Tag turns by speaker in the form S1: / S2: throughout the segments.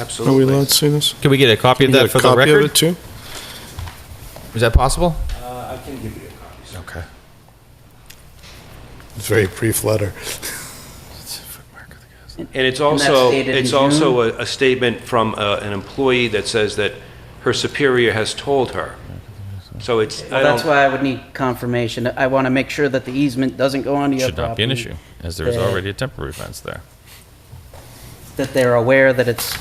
S1: Are we
S2: Absolutely.
S1: allowed to see this?
S3: Can we get a copy of
S1: Get
S3: that
S1: a
S3: for the
S1: copy of it
S3: record?
S1: too?
S3: Is that possible?
S2: Uh, I can give you a copy.
S1: Okay. It's a very brief letter.
S2: And it's
S4: And that's
S2: also,
S4: dated in
S2: it's also a a statement from uh, an employee that says that her superior has told her. So it's, I
S4: Well, that's
S2: don't,
S4: why I would need confirmation. I want to make sure that the easement doesn't go onto your
S3: Should
S4: property.
S3: not be an issue, as there is
S4: Yeah.
S3: already a temporary fence there.
S4: That they're aware that it's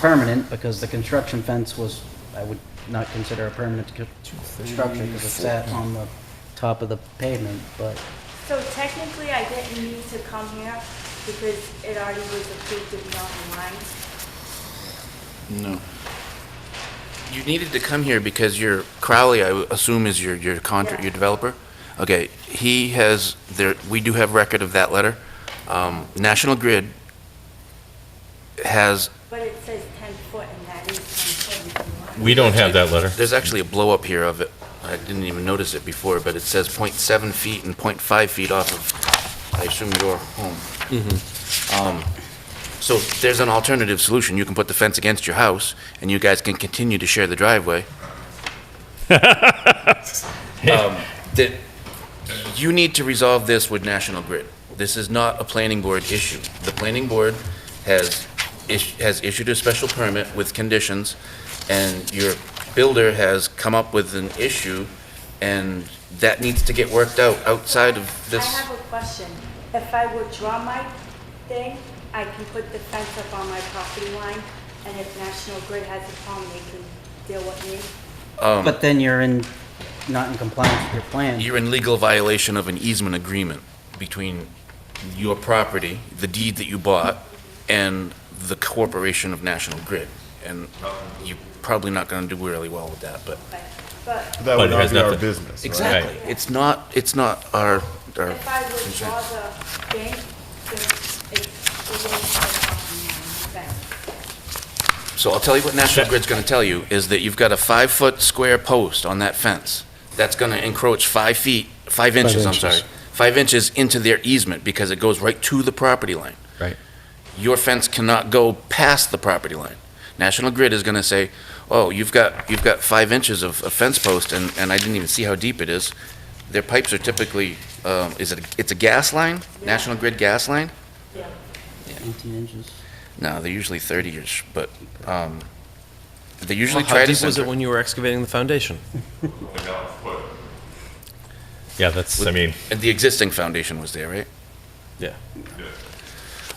S4: permanent, because the construction fence was, I would not consider a permanent co- construction, because it's sat on the top of the pavement, but
S5: So technically, I didn't need to come here because it already was approved to be on the line.
S6: No. You needed to come here because your Crowley, I w- assume, is your, your contract,
S5: Yeah.
S6: your developer? Okay, he has, there, we do have record of that letter. Um, National Grid has,
S5: but it says 10 foot and that is 10 foot. if you want.
S3: We don't have that letter.
S6: there's actually a blow-up here of it. I didn't even notice it before, but it says .7 feet and .5 feet off of, I assume, your home. Um, So there's an alternative solution. You can put the fence against your house, and you guys can continue to share the driveway. um, that you need to resolve this with National Grid. This is not a planning board issue. The planning board has, is- has issued a special permit with conditions, and your builder has come up with an issue, and that needs to get worked out outside of
S5: I
S6: this.
S5: have a question. If I withdraw my thing, I can put the fence up on my property line and if National Grid has a problem, they can deal with me.
S4: But then you're in, not in compliance with your plan.
S6: You're in legal violation of an easement agreement between your property, the deed that you bought, and the corporation of National Grid. And you're probably not going to do really well with that, but.
S5: But- But
S7: That
S3: But
S7: would
S3: it has
S7: not be our
S3: nothing-
S7: business, right?
S6: Exactly. It's not, it's not our, our
S5: if I
S6: concern.
S5: withdraw the thing, then it it won't come on my fence.
S6: So I'll tell you what National Grid's going to tell you, is that you've got a five-foot square post on that fence. That's going to encroach five feet, five inches, I'm
S1: inches.
S6: sorry, five inches into their easement because it goes right to the property line.
S3: Right.
S6: Your fence cannot go past the property line. National Grid is going to say, oh, you've got, you've got five inches of, of fence post and, and I didn't even see how deep it is. Their pipes are typically, um, is it, a- it's a gas line? National Grid gas line?
S4: 18 inches.
S6: No, they're usually 30-ish, but um, they usually
S8: Well,
S6: try
S8: how
S6: to
S8: deep was
S6: center.
S8: it when you were excavating the foundation?
S3: Yeah, that's, I
S6: With-
S3: mean,
S6: And the existing foundation was there, right?
S8: Yeah.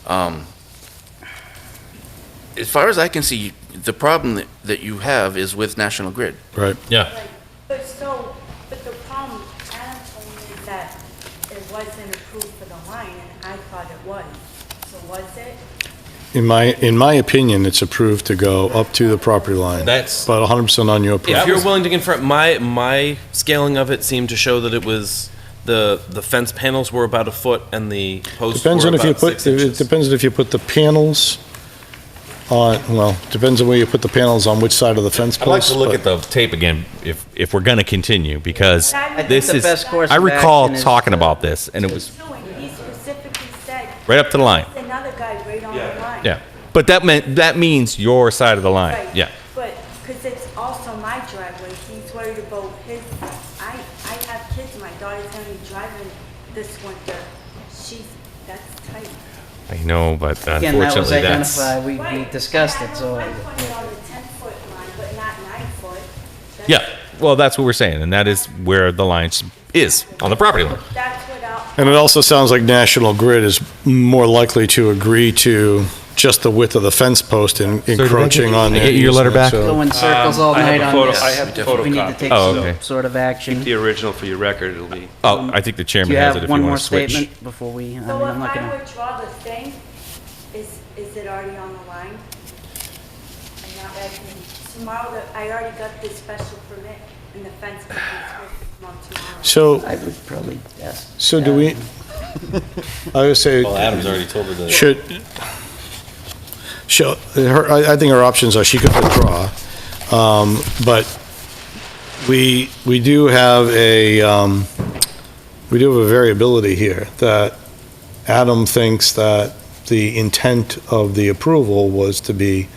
S6: Um, As far as I can see, the problem that- that you have is with National Grid.
S1: Right.
S3: yeah,
S5: But so, but the problem, Adam told me that it wasn't approved for the line, and I thought it was. So was it?
S1: In my, in my opinion, it's approved to go up to the property line, but
S8: That's,
S1: 100% on your
S8: if
S1: property.
S8: you're willing to confront, my, my scaling of it seemed to show that it was, the, the fence panels were about a foot and the posts were
S1: Depends on if you
S8: about
S1: put,
S8: six
S1: it
S8: inches.
S1: depends on if you put the panels on, well, depends on where you put the panels on which side of the fence
S3: I'd like
S1: post.
S3: to look
S1: but-
S3: at the tape again, if, if we're gonna continue, because
S5: I think
S3: this
S5: the
S3: is,
S5: best
S4: course
S3: I
S4: of
S3: recall
S4: action is
S3: talking
S4: to-
S3: about this, and it was
S5: No, and he specifically said,
S3: right up to the line,
S5: another guy right on the line.
S3: yeah. But that meant, that means your side of the line,
S5: Right.
S3: yeah.
S5: But, because it's also my driveway, he's worried about his, I, I have kids, my daughter's gonna be driving this winter. She's, that's tight.
S3: I know, but
S4: Again, that was
S3: unfortunately, that's,
S4: identified, we we
S5: Right,
S4: discussed
S5: and I
S4: it,
S5: have
S4: so.
S5: one point on the ten foot line, but not nine foot. That's-
S3: yeah, well, that's what we're saying, and that is where the line s- is, on the property line.
S5: That's what I'll,
S1: And it also sounds like National Grid is more likely to agree to just the width of the fence post and
S3: I get-
S1: encroaching on
S3: I
S1: their
S3: get your letter
S1: easement,
S3: back?
S1: so-
S4: Go in circles all
S2: Um, I have
S4: night
S2: a
S4: on
S2: photo-
S4: this.
S2: I have a
S4: We need to
S2: photocopy.
S4: take
S3: Oh,
S4: some
S3: okay.
S4: sort of action.
S2: the
S4: Do
S2: original for your record, it'll be,
S3: Oh, I think the chairman
S4: you
S3: has it
S4: have
S3: if you
S4: one more
S3: wanna switch.
S4: statement before we, I mean,
S5: so if
S4: I'm not
S5: I
S4: gonna.
S5: withdraw the thing, is, is it already on the line? And now that I can, tomorrow, the- I already got this special permit and the fence company's supposed to come out tomorrow.
S1: So,
S4: I would probably ask.
S1: so do we, I would say.
S3: Adam's already told her the.
S1: Should, should, her, I, I think her options are she could withdraw, um, but we, we do have a, um, we do have a variability here that Adam thinks that the intent of the approval was to be